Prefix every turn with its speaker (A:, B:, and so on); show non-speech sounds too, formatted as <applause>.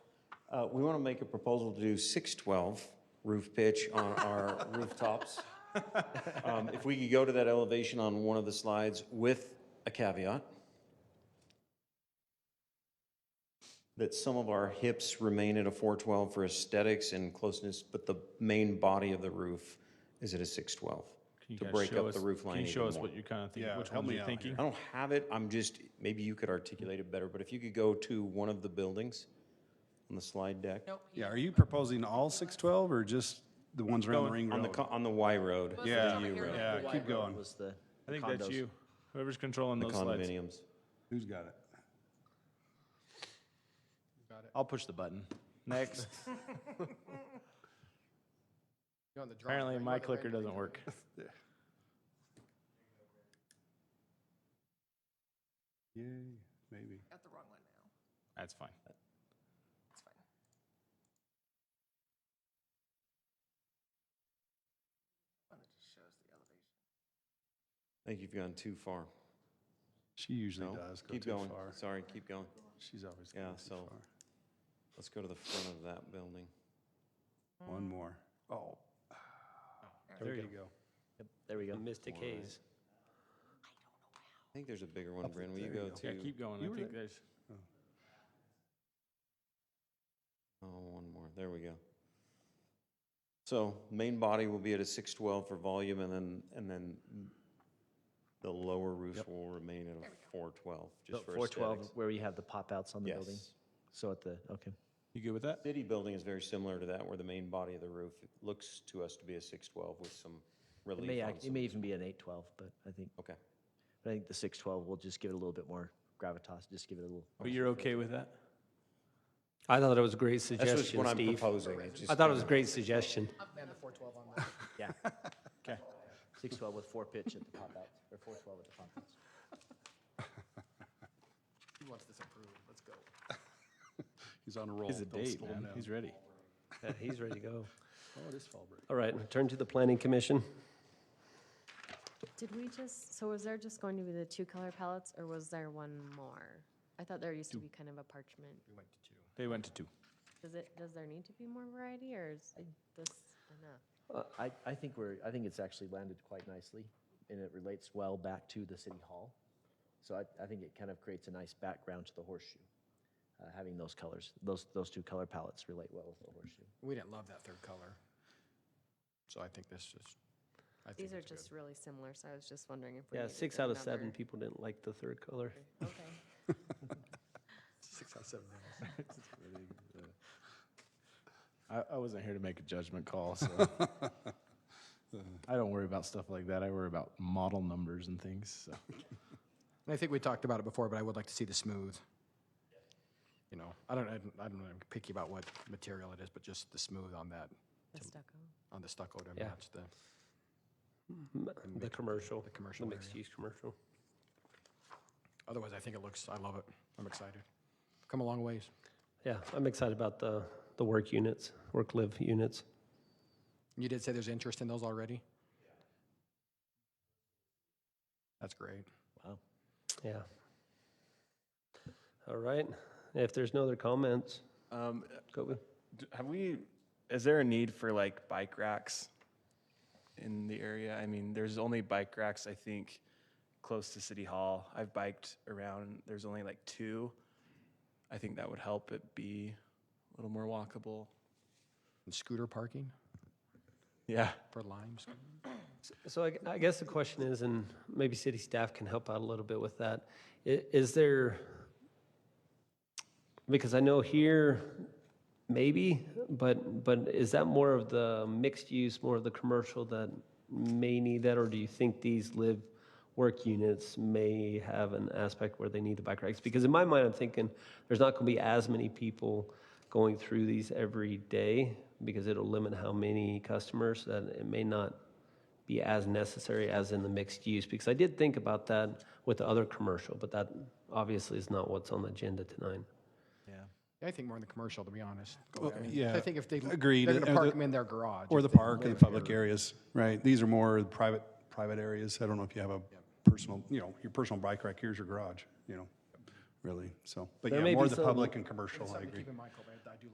A: Uh, We want to make a proposal to do 612 roof pitch on
B: <laughs>
A: our rooftops. Um, If we could go to that elevation on one of the slides with a caveat that some of our hips remain at a 412 for aesthetics and closeness, but the main body of the roof is at a 612
B: Can you
A: to
B: guys
A: break
B: show
A: up the
B: us-
A: roof line
B: Can you show
A: even
B: us
A: more.
B: what you kind of think,
C: Yeah,
B: which
C: help
B: ones
C: me
B: you're
C: out
B: thinking?
A: I don't have it, I'm just, maybe you could articulate it better, but if you could go to one of the buildings on the slide deck.
D: Nope.
C: Yeah, are you proposing all six twelve or just the ones around the ring
A: On the,
C: road?
A: co- on the Y road.
D: Well, it's
C: Yeah,
D: over here.
C: yeah,
D: The
C: keep
D: white
C: going.
E: was the
B: I think
E: condos.
B: that's you. Whoever's controlling
A: The
B: those slides. <laughs>
A: condominiums.
C: Who's got it?
B: I'll push the button. Next.
F: You're on the drawing
B: Apparently,
F: board.
B: my
F: You're the
B: clicker
F: rendering
B: doesn't
F: board.
B: work.
C: Yay, maybe.
D: Got the wrong one now.
B: That's fine.
D: It's fine. One that just shows the elevation.
A: I think you've gone too far.
C: She usually
A: No?
C: does go
A: Keep
C: too
A: going.
C: far.
A: Sorry, keep going.
C: She's always
A: Yeah,
C: going too
A: so- Let's go to the front of that building.
C: far. One more. Oh. There you go.
E: Yep, There we go.
G: Mystic Haze.
A: I think there's a bigger one,
C: Up
A: Bryn. Will you
C: there you
A: go
C: go.
B: Yeah,
A: to?
B: keep going.
C: You
B: I
C: were
B: think
C: there.
B: there's.
A: Oh, one more. There we go. So main body will be at a 612 for volume and then, and then the lower roof will remain at a 412 just for
E: Four twelve,
A: aesthetics.
E: where you have the pop outs on the building.
A: Yes.
E: So at the, okay.
B: You good with that?
A: City building is very similar to that where the main body of the roof looks to us to be a 612 with some
E: It
A: relief
E: may,
A: on
E: act- it
A: some.
E: may even be an eight twelve, but I think,
A: Okay.
E: I think the six twelve will just give it a little bit more gravitas, just give it a little.
B: But you're okay with that?
G: I thought it was a great
A: That's just
G: suggestion,
A: what I'm
G: Steve.
A: proposing. It's just
G: I thought
A: kinda-
G: it was a great suggestion.
F: And the 412 on that.
E: Yeah,
B: Okay.
E: six twelve with four pitch at the pop outs, or four twelve at the pop outs.
F: He wants this approved. Let's go.
C: He's on a roll.
B: He's a
C: Don't
B: date,
C: slow him
B: man.
C: down.
B: He's ready.
G: Yeah, He's ready to go.
C: Oh, it is fall break.
G: All right, turn to the Planning Commission.
H: Did we just, so was there just going to be the two color palettes or was there one more? I thought there used to be kind of a parchment.
B: They went to two.
H: Does it, does there need to be more variety or is this enough?
E: Uh, I, I think we're, I think it's actually landed quite nicely, and it relates well back to the city hall. So I, I think it kind of creates a nice background to the horseshoe, uh, having those colors, those, those two color palettes relate well with the horseshoe.
F: We didn't love that third color. So I think this is, I think
H: These are
F: it's good.
H: just really similar, so I was just wondering if we
G: Yeah,
H: needed
G: six out of seven
H: another-
G: people didn't like the third color. <laughs>
H: Okay.
F: Six out
B: <laughs>
F: of seven. nails.
B: I, I wasn't here to make a judgment call, so. I don't worry about stuff like that. I worry about model numbers and things, so.
F: And I think we talked about it before, but I would like to see the smooth. You know, I don't, I don't, I don't know, I'm picky about what material it is, but just the smooth on that,
H: The stucco.
F: on the stucco to
G: Yeah.
F: match the,
G: The commercial, the
F: commercial area.
G: mixed-use commercial.
F: otherwise I think it looks, I love it. I'm excited. Come a long ways.
G: Yeah, I'm excited about the, the work units, work-live units.
F: You did say there's interest in those already? That's great.
E: Wow.
G: Yeah. All right, if there's no other comments,
I: Um,
G: go with.
I: d- have we? Is there a need for like bike racks in the area? I mean, there's only bike racks I think close to City Hall. I've biked around. There's only like two. I think that would help it be a little more walkable.
F: And scooter parking
I: Yeah.
F: for limes?
G: So I, I guess the question is, and maybe city staff can help out a little bit with that, i- is there, because I know here, maybe, but, but is that more of the mixed use, more of the commercial that may need that, or do you think these live work units may have an aspect where they need the bike racks? Because in my mind, I'm thinking, there's not gonna be as many people going through these every day, because it'll limit how many customers, that it may not be as necessary as in the mixed use? Because I did think about that with the other commercial, but that obviously is not what's on the agenda tonight.
F: I think more in the commercial, to be honest. Go
C: Well,
F: there.
C: yeah,
F: I think if they,
C: agreed,
F: they're
C: and- or
F: gonna park
C: the-
F: them in their garage.
C: Or
F: if
C: the
F: they
C: park
F: live
C: and
F: here.
C: public areas, right? These are more private, private areas. I don't know if you have a personal, you know, your personal bike rack, here's your garage, you know, really, so. But
G: There
C: yeah,
G: may
C: more
G: be
C: the
G: some-
C: public and commercial, I
F: Something to
C: agree.
F: keep in mind, Colby, I I do